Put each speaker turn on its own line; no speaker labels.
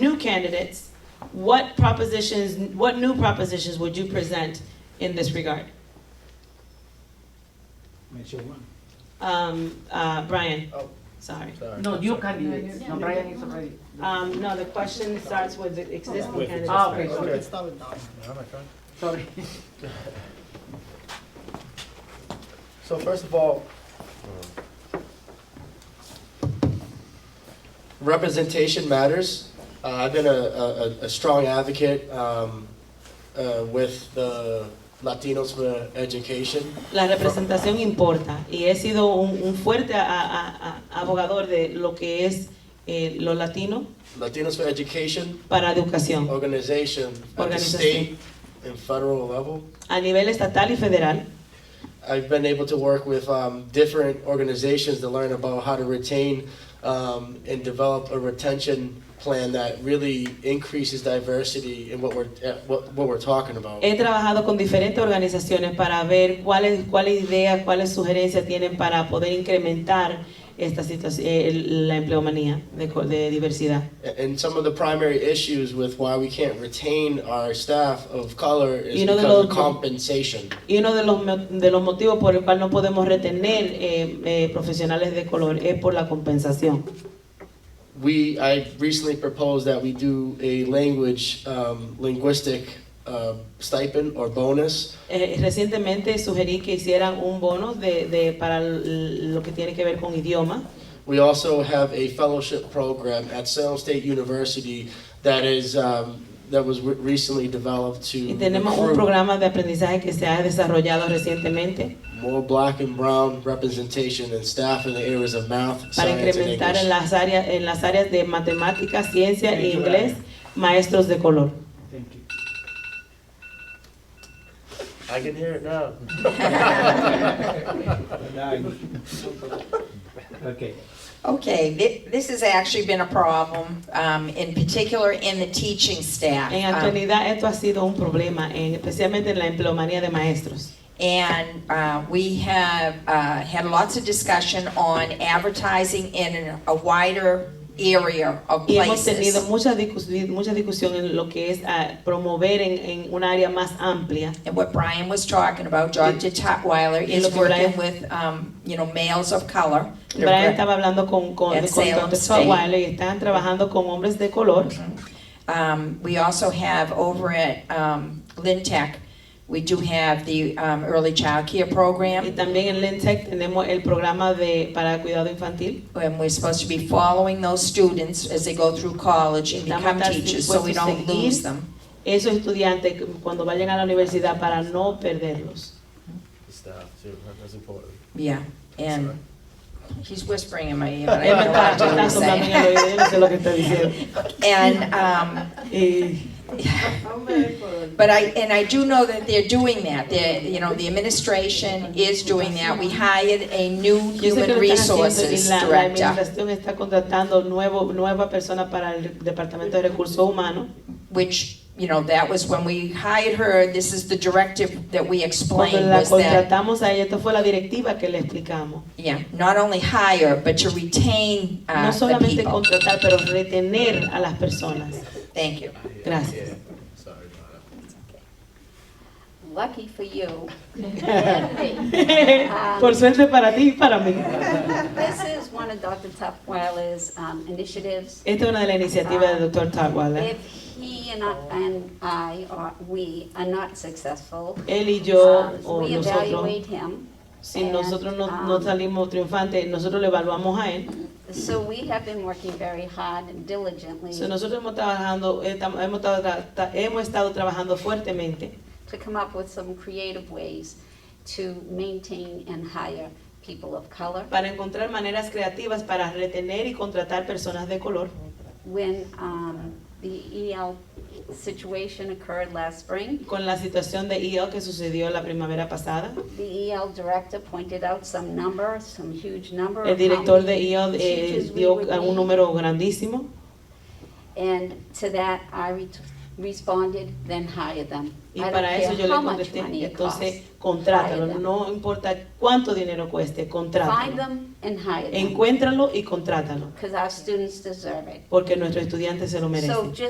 new candidates, what propositions, what new propositions would you present in this regard?
Mention one.
Um, uh, Brian?
Oh.
Sorry.
Sorry.
No, new candidates, no, Brian is already.
Um, no, the question starts with the existing
With
candidates.
Ah, okay,
Okay.
sorry,
No, my God.
sorry.
So first of all, representation matters. Uh, I've been a, a, a- a strong advocate um, uh, with the Latinos for Education.
La representación importa y he sido un, un fuerte a- a- a- abogador de lo que es eh, lo latino
Latinos for Education
para educación
organization at the
Organización.
state and federal level.
a nivel estatal y federal.
I've been able to work with um, different organizations to learn about how to retain um, and develop a retention plan that really increases diversity in what we're eh, what, what we're talking about.
He trabajado con diferentes organizaciones para ver cuáles cuáles ideas, cuáles sugerencias tienen para poder incrementar esta situación, la empleomanía de, co- de diversidad.
and some of the primary issues with why we can't retain our staff of color is
You know the
because of
law-
compensation.
Y uno de los, mo- de los motivos por el cual no podemos retener eh, eh, profesionales de color es por la compensación.
We I recently proposed that we do a language um, linguistic uh, stipend or bonus
Eh, recientemente sugerí que hicieran un bono de, de- para l- lo que tiene que ver con idioma.
We also have a fellowship program at Salem State University that is um, that was re- recently developed to
Y tenemos un
recruit
programa de aprendizaje que se ha desarrollado recientemente
more black and brown representation and staff in the areas of math,
para
science, and
incrementar en
English.
las, áreas, en las áreas de matemáticas, ciencia e
Thank you,
inglés
Adam.
maestros de color.
Thank you.
I can hear it now.
Okay.
Okay, thi- this has actually been a problem, um, in particular in the teaching staff.
En
Um,
actualidad esto ha sido un problema, en- especialmente en la empleomanía de maestros.
And uh, we have uh, had lots of discussion on advertising in a wider area of
Y hemos tenido
places.
mucha, discus- mucha discusión en lo que es ah, promover en, en un área más amplia
And what Brian was talking about, Dr. Tutwiler
Y lo
is
que Brian-
working with, um, you know, males of color.
Brian estaba hablando con, con,
At
con
Salem
Dr.
State.
Tutwiler y están trabajando con hombres de color.
Um, We also have over at um, Lynn Tech, we do have the um, early child care program.
Y también en Lentec tenemos el programa de, para cuidado infantil.
And we're supposed to be following those students as they go through college and become teachers, so we don't lose them.
Esos estudiantes cuando vayan a la universidad para no perderlos.
The staff too. That's important.
Yeah, and he's whispering in my ear, but I
Él me
don't know
está,
what
me está
he's
soplando en el oído, yo
saying.
no sé lo que está diciendo.
And, um,
Y
but I, and I do know that they're doing that, they're, you know, the administration is doing that. We hired a new
yo sé que
human
lo están haciendo y
resources
la, la
director,
administración está contratando nuevo, nueva persona para el Departamento de Recursos Humanos.
which, you know, that was when we hired her, this is the directive that we
Cuando
explained
la
was that
contratamos a ella, esta fue la directiva que le explicamos.
Yeah, not only hire, but to retain uh,
No
the
solamente
people.
contratar, pero retener a las personas.
Thank you.
Gracias.
Sorry about that.
Lucky for you. Um,
Por suerte para ti y para mí.
This is one of Dr. Tutwiler's um, initiatives.
Esta es una de las iniciativas del doctor Tagwala.
If he and I- and I, or we, are not successful,
Él y yo,
um,
o
we
nosotros,
evaluate him.
si nosotros no, no
Ah.
salimos triunfantes, nosotros lo evaluamos a él.
So we have been working very hard and diligently
So, nosotros hemos, trabajando, estamos- hemos, estado tra- ta- hemos estado trabajando fuertemente
to come up with some creative ways to maintain and hire people of color.
para encontrar maneras creativas para retener y contratar personas de color.
When um, the EL situation occurred last spring,
Con la situación de EL que sucedió la primavera pasada,
The EL director E pointed out some number, some huge number.
el
of how
director de
many
EL eh,
teachers we
dio
would
un
need.
número grandísimo
And to that, I ret- responded, then hire them.
Y
I don't
para eso
care
yo le
how much
contesté,
money it
entonces
costs.
contrátalo,
Hire them.
no importa cuánto dinero cueste,
Find
contrátalo.
them and hire them,
Encuéntralo y contrátalo,
because our students deserve it.
porque nuestros estudiantes se lo merecen.
So just